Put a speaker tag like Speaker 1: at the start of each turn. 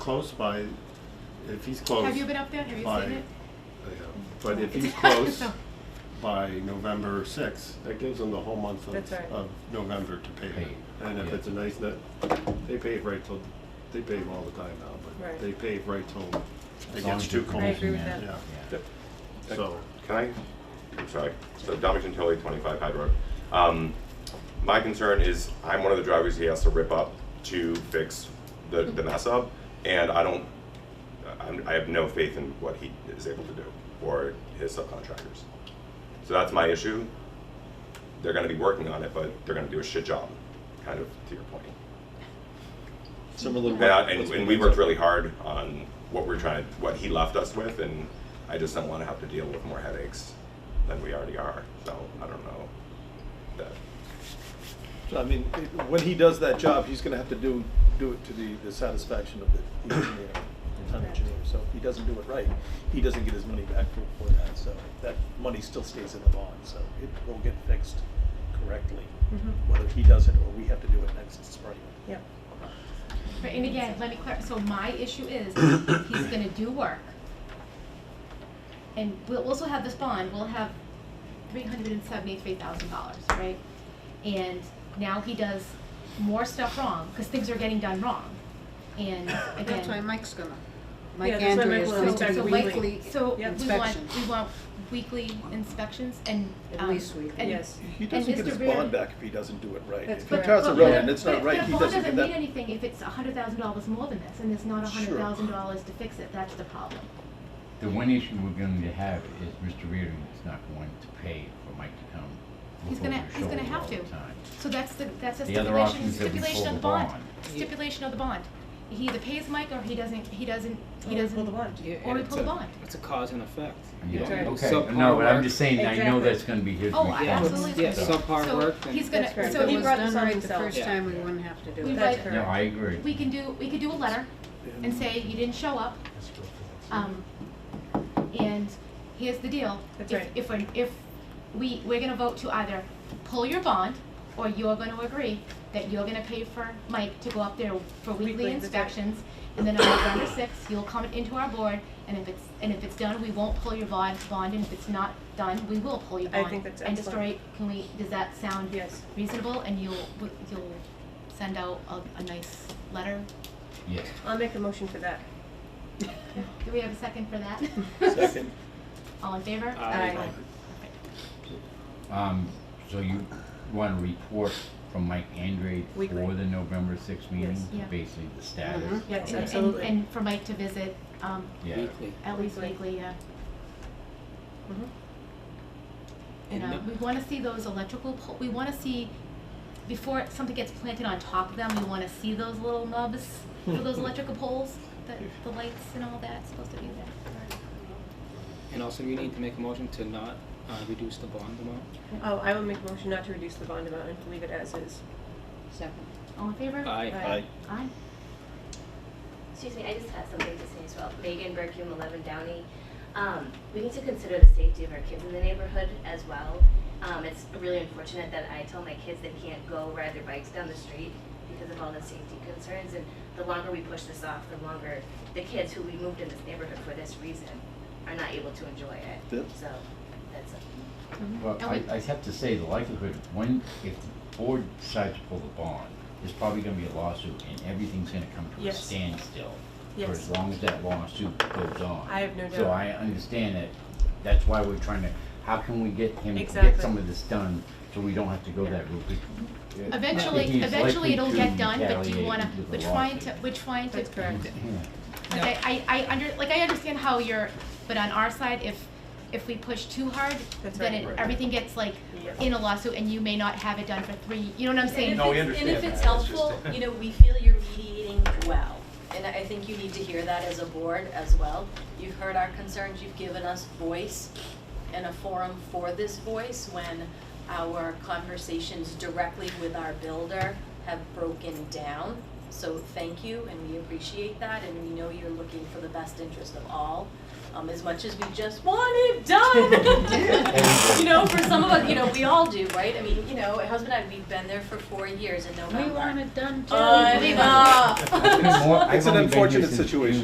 Speaker 1: close by, if he's close.
Speaker 2: Have you been up there? Have you
Speaker 1: by-
Speaker 2: seen it?
Speaker 1: I have. But if he's close by November sixth, that gives them the whole month
Speaker 3: That's
Speaker 1: of,
Speaker 3: right.
Speaker 1: of November to pave it.
Speaker 4: Pave,
Speaker 1: And if
Speaker 4: yeah.
Speaker 1: it's a nice net, they pave right till, they pave all the time now, but
Speaker 3: Right.
Speaker 1: they pave right till
Speaker 4: As
Speaker 1: it
Speaker 4: long
Speaker 1: gets
Speaker 4: as you're
Speaker 1: too cold.
Speaker 3: I agree with
Speaker 4: Yeah.
Speaker 3: that.
Speaker 1: Yeah,
Speaker 4: Yeah.
Speaker 1: so,
Speaker 5: Can I? I'm sorry. So Domington Tilly, 25 Hyde Road. Um, my concern is I'm one of the drivers he has to rip up to fix the, the mess up, and I don't. I'm, I have no faith in what he is able to do or his subcontractors. So that's my issue. They're going to be working on it, but they're going to do a shit job, kind of to your point.
Speaker 6: Similar.
Speaker 5: And, I- and, and we worked really hard on what we're trying, what he left us with, and I just don't want to have to deal with more headaches than we already are. So I don't know. That,
Speaker 6: So, I mean, it- when he does that job, he's gonna have to do, do it to the, the satisfaction of the engineer, the town engineer. So if he doesn't do it right, he doesn't get his money back for, for that, so that money still stays in the bond, so it will get fixed correctly.
Speaker 3: Mhm.
Speaker 6: Whether he does it or we have to do it next spring.
Speaker 3: Yep.
Speaker 2: But, and again, let me clarify, so my issue is, he's gonna do work. And we'll also have this bond, we'll have three hundred and seventy-three thousand dollars, right? And now he does more stuff wrong, cause things are getting done wrong, and again.
Speaker 7: That's why Mike's gonna, Mike
Speaker 3: Yeah, that's why
Speaker 7: Andrew
Speaker 3: Mike
Speaker 7: is
Speaker 3: will
Speaker 7: going
Speaker 3: inspect
Speaker 7: to do
Speaker 3: weekly.
Speaker 7: weekly
Speaker 3: Yep.
Speaker 2: So we want,
Speaker 7: inspections.
Speaker 2: we want weekly inspections and,
Speaker 7: At
Speaker 2: um,
Speaker 7: least weekly.
Speaker 2: and-
Speaker 3: Yes.
Speaker 6: He
Speaker 2: And
Speaker 6: doesn't get
Speaker 2: Mr.
Speaker 6: his
Speaker 2: Reardon-
Speaker 6: bond back if he doesn't do it right.
Speaker 3: That's
Speaker 6: If he
Speaker 3: correct.
Speaker 6: cars a
Speaker 2: But-
Speaker 6: road
Speaker 2: but-
Speaker 6: and it's not
Speaker 2: but-
Speaker 6: right,
Speaker 2: but
Speaker 6: he
Speaker 2: bond
Speaker 6: doesn't get
Speaker 2: doesn't mean
Speaker 6: that.
Speaker 2: anything if it's a hundred thousand dollars more than this, and it's not a hundred
Speaker 6: Sure.
Speaker 2: thousand dollars to fix it, that's the problem.
Speaker 4: The one issue we're going to have is Mr. Reardon is not going to pay for Mike to come
Speaker 2: He's
Speaker 4: look
Speaker 2: gonna-
Speaker 4: over his
Speaker 2: he's gonna
Speaker 4: shoulder
Speaker 2: have
Speaker 4: all the
Speaker 2: to.
Speaker 4: time.
Speaker 2: So that's the, that's a
Speaker 4: The other option
Speaker 2: stipulation,
Speaker 4: is that we
Speaker 2: stipulation of
Speaker 4: pull
Speaker 2: the
Speaker 4: the
Speaker 2: bond,
Speaker 4: bond.
Speaker 2: stipulation of the bond. He either pays Mike or he doesn't, he doesn't, he
Speaker 3: Or we
Speaker 2: doesn't.
Speaker 3: pull the bond.
Speaker 8: Yeah,
Speaker 2: Or
Speaker 8: and
Speaker 2: we
Speaker 8: it's
Speaker 2: pull the
Speaker 8: a-
Speaker 2: bond.
Speaker 8: It's a cause and effect.
Speaker 4: Yeah,
Speaker 8: You don't do
Speaker 4: okay,
Speaker 8: subpar
Speaker 4: no, but I'm
Speaker 8: work.
Speaker 4: just saying, I know
Speaker 3: Exactly.
Speaker 4: that's going to be his
Speaker 2: Oh, I
Speaker 4: responsibility.
Speaker 2: absolutely.
Speaker 8: Yeah,
Speaker 2: agree.
Speaker 8: subpar
Speaker 2: So
Speaker 8: work and-
Speaker 2: He's gonna,
Speaker 3: That's correct.
Speaker 2: so
Speaker 3: He
Speaker 7: If it
Speaker 2: we,
Speaker 7: was
Speaker 3: brought this
Speaker 7: done
Speaker 3: on
Speaker 7: right the
Speaker 3: himself.
Speaker 7: first
Speaker 8: Yeah.
Speaker 7: time, we wouldn't have to do
Speaker 2: We
Speaker 7: it.
Speaker 3: That's
Speaker 2: write-
Speaker 3: correct.
Speaker 4: No, I agree.
Speaker 2: we can do, we could do a letter and say, you didn't show up. Um, and here's the deal.
Speaker 3: That's
Speaker 2: If-
Speaker 3: right.
Speaker 2: If, we're- if we, we're gonna vote to either pull your bond, or you're gonna agree that you're gonna pay for Mike to go up there for weekly
Speaker 3: Weekly, that's right.
Speaker 2: inspections. And then on November sixth, you'll come into our board, and if it's, and if it's done, we won't pull your bond, bond, and if it's not done, we will pull your
Speaker 3: I
Speaker 2: bond.
Speaker 3: think that's
Speaker 2: End of
Speaker 3: excellent.
Speaker 2: story, can we, does that sound
Speaker 3: Yes.
Speaker 2: reasonable, and you'll, you'll send out a, a nice letter
Speaker 4: Yes.
Speaker 3: I'll make a motion for that.
Speaker 2: do we have a second for that?
Speaker 6: Second,
Speaker 2: All in favor?
Speaker 8: Aye.
Speaker 3: Aye.
Speaker 4: Um, so you want a report from Mike Andre
Speaker 3: Weekly.
Speaker 4: for the November sixth meeting,
Speaker 3: Yes.
Speaker 2: Yeah.
Speaker 4: basically the status?
Speaker 7: Mhm.
Speaker 2: Yes, and- and-
Speaker 3: Absolutely.
Speaker 2: And for Mike to visit, um,
Speaker 4: Yeah,
Speaker 8: Weekly.
Speaker 2: at least
Speaker 3: Weekly.
Speaker 2: weekly, yeah.
Speaker 3: Mhm.
Speaker 2: And, uh,
Speaker 8: And the-
Speaker 2: we wanna see those electrical pole, we wanna see, before something gets planted on top of them, we wanna see those little nubs for those electrical poles, the, the lights and all that's supposed to be there.
Speaker 8: And also, you need to make a motion to not uh, reduce the bond amount.
Speaker 3: Oh, I will make a motion not to reduce the bond amount and to leave it as is.
Speaker 7: Second.
Speaker 2: All in favor?
Speaker 8: Aye.
Speaker 6: aye.
Speaker 2: Aye.
Speaker 9: Excuse me, I just have something to say as well. Megan Berkum, 11 Downey. Um, we need to consider the safety of our kids in the neighborhood as well. Um, it's really unfortunate that I tell my kids they can't go ride their bikes down the street because of all the safety concerns. And the longer we push this off, the longer the kids who we moved in this neighborhood for this reason are not able to enjoy it.
Speaker 6: Yep.
Speaker 9: So that's
Speaker 4: well,
Speaker 2: And
Speaker 4: I,
Speaker 2: we-
Speaker 4: I have to say, the likelihood, when, if the board decides to pull the bond, there's probably gonna be a lawsuit, and everything's gonna come to a
Speaker 3: Yes.
Speaker 4: standstill. For
Speaker 3: Yes.
Speaker 4: as long as that lawsuit goes on.
Speaker 3: I have no
Speaker 4: So
Speaker 3: doubt.
Speaker 4: I understand that, that's why we're trying to, how can we get him to get
Speaker 3: Exactly.
Speaker 4: some of this done, so we don't have to go that route? Because
Speaker 2: Eventually,
Speaker 4: he's
Speaker 2: eventually
Speaker 4: likely
Speaker 2: it'll
Speaker 4: to
Speaker 2: get done, but do you
Speaker 4: retaliate
Speaker 2: wanna,
Speaker 4: with a
Speaker 2: we're trying to,
Speaker 4: lawsuit.
Speaker 2: we're trying to.
Speaker 3: That's correct.
Speaker 2: Like I, I, I under, like I understand how you're, but on our side, if, if we push too hard,
Speaker 3: That's
Speaker 2: then
Speaker 3: right.
Speaker 2: it, everything gets like
Speaker 3: Yeah.
Speaker 2: in a lawsuit and you may not have it done for three, you know what I'm saying?
Speaker 4: No, we understand
Speaker 9: And if it's
Speaker 4: that. It's
Speaker 9: helpful,
Speaker 4: just-
Speaker 9: you know, we feel you're mediating well. And I think you need to hear that as a board as well. You've heard our concerns, you've given us voice and a forum for this voice when our conversations directly with our builder have broken down.
Speaker 10: So thank you, and we appreciate that, and we know you're looking for the best interest of all, um, as much as we just want it done. You know, for some of us, you know, we all do, right? I mean, you know, husband and I, we've been there for four years in November.
Speaker 7: We want it done too.
Speaker 10: Uh, I know.
Speaker 4: I've been more- I've
Speaker 6: It's an
Speaker 4: only been here
Speaker 6: unfortunate
Speaker 4: since
Speaker 6: situation.
Speaker 4: June.